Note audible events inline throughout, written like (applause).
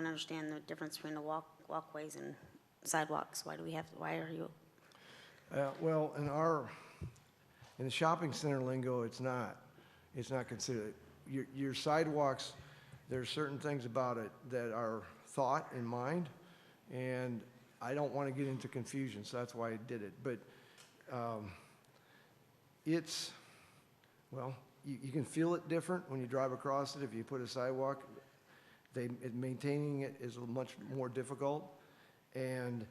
don't understand the difference between the walk, walkways and sidewalks. Why do we have, why are you, Uh, Well, in our, in the shopping center lingo, it's not, it's not considered. Your your sidewalks, there are certain things about it that are thought in mind, and I don't want to get into confusion, so that's why I did it. But um, it's, well, you you can feel it different when you drive across it. If you put a sidewalk, they, it- maintaining it is much more difficult. And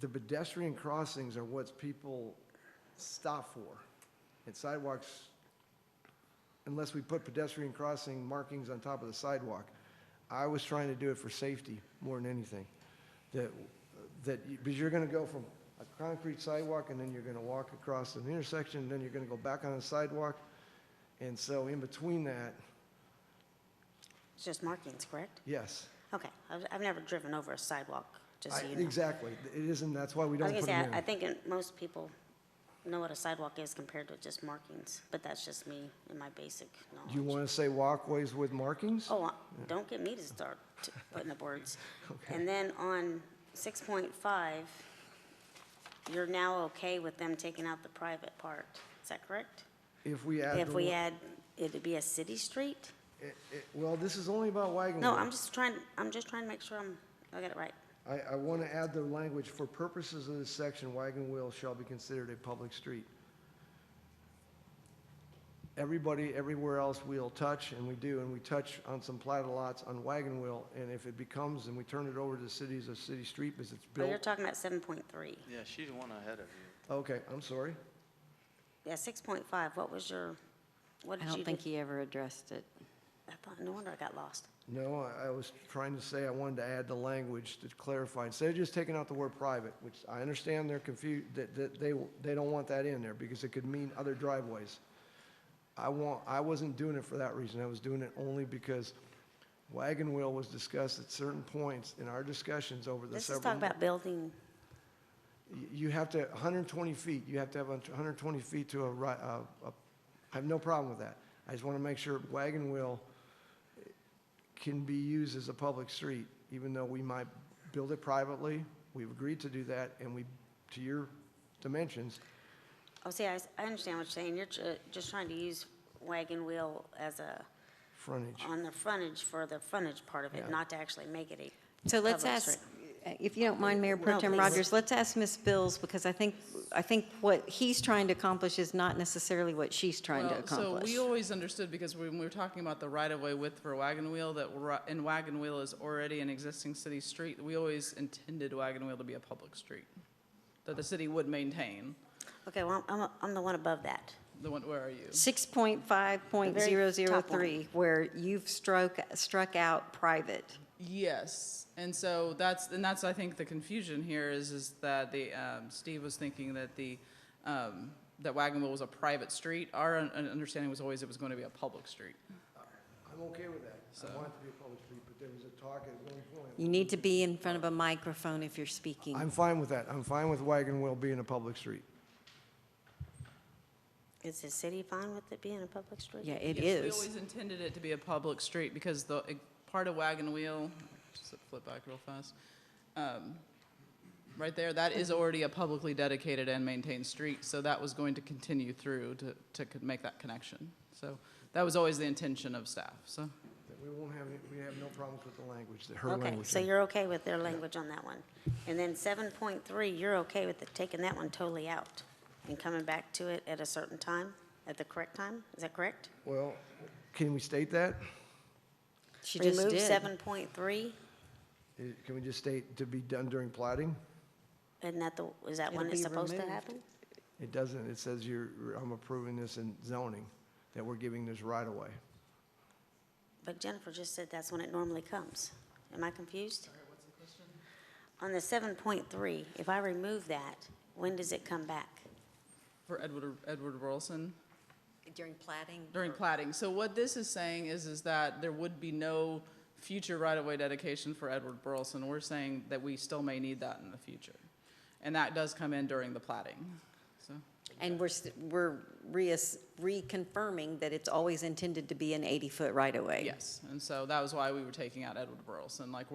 the pedestrian crossings are what people stop for. And sidewalks, unless we put pedestrian crossing markings on top of the sidewalk, I was trying to do it for safety more than anything. That, that, you- because you're gonna go from a concrete sidewalk and then you're gonna walk across an intersection, and then you're gonna go back on the sidewalk. And so in between that, it's just markings, correct? yes. Okay, I've, I've never driven over a sidewalk, just I- so you know. Exactly. It isn't, that's why we I don't was put gonna it say, in. I I think in- most people know what a sidewalk is compared to just markings, but that's just me and my basic Do you knowledge. wanna say walkways with markings? Oh, uh, don't get me to start t- putting up (laughs) words. And then on six point five, you're now okay with them taking out the private part, is that correct? If we add. If the we wa- add, it'd be a city street? It- it- Well, this is only about wagon No, wheel. I'm just trying, I'm just trying to make sure I'm, I got it right. I, I want to add the language, for purposes of this section, wagon wheel shall be considered a public street. Everybody, everywhere else, we'll touch, and we do, and we touch on some platted lots on wagon wheel, and if it becomes, and we turn it over to the cities, a city street, because it's But you're built. talking about seven point three. Yeah, she's one ahead of you. Okay, I'm sorry. Yeah, six point five, what was your, what I did you do? don't think he ever addressed it. I thought, no wonder I got lost. No, I- I was trying to say I wanted to add the language to clarify. Instead of just taking out the word private, which I understand they're confused, that, that they, they don't want that in there because it could mean other driveways. I want, I wasn't doing it for that reason. I was doing it only because wagon wheel was discussed at certain points in our discussions over the This several. is talking about building, You- You have to, 120 feet, you have to have 120 feet to a ri, a- a- I have no problem with that. I just want to make sure wagon wheel eh, can be used as a public street, even though we might build it privately. We've agreed to do that, and we, to your dimensions, oh, see, I, s- I understand what you're saying, you're ju- just trying to use wagon wheel as a, frontage. on the frontage for the frontage part of it, Yeah. not to actually make it a. So let's public ask, street. uh, if you don't mind, Mayor Pro No, Tem please. Rogers, let's ask Ms. Bills, because I think, I think what he's trying to accomplish is not necessarily what she's trying to Well, So accomplish. we always understood, because when we were talking about the right-of-way width for Wagon Wheel, that, ri- and Wagon Wheel is already an existing city street, we always intended Wagon Wheel to be a public street, that the city would maintain. Okay, well, I'm, I'm the one above that. The one, where are you? 6.5.003, where you've struck, struck out private. Yes, and so that's, and that's, I think, the confusion here is, is that the, um, Steve was thinking that the, um, that Wagon Wheel was a private street. Our un- understanding was always it was going to be a public street. I'm okay with that. I want it to be a public street, but there was a talk at one point. You need to be in front of a microphone if you're speaking. I'm fine with that. I'm fine with wagon wheel being a public street. Is the city fine with it being a public street? Yeah, it Yes, We is. always intended it to be a public street because the, eh, part of Wagon Wheel, just flip back real fast. um, Right there, that is already a publicly dedicated and maintained street, so that was going to continue through to, to co- make that connection. So that was always the intention of staff, so. That We won't have, any- we have no problems with the language, her language. Okay, so there. you're okay with their language on that one. And then seven point three, you're okay with the- taking that one totally out and coming back to it at a certain time, at the correct time? Is that correct? Well, can we state that? She just did. Remove seven point three, Uh, Can we just state to be done during plating? and that the, is that It'll when it's be supposed to removed. happen? It doesn't, it says you're, I'm approving this in zoning, that we're giving this right away. But Jennifer just said that's when it normally comes. Am I confused? On the seven point three, if I remove that, when does it come back? For Edward, Edward Wilson, During plating? during plating. So what this is saying is, is that there would be no future right-of-way dedication for Edward Burleson. We're saying that we still may need that in the future. And that does come in during the plating, so. And we're, s- we're reass- reconfirming that it's always intended to be an 80-foot right-of-way. Yes, and so that was why we were taking out Edward Burleson. Like, we're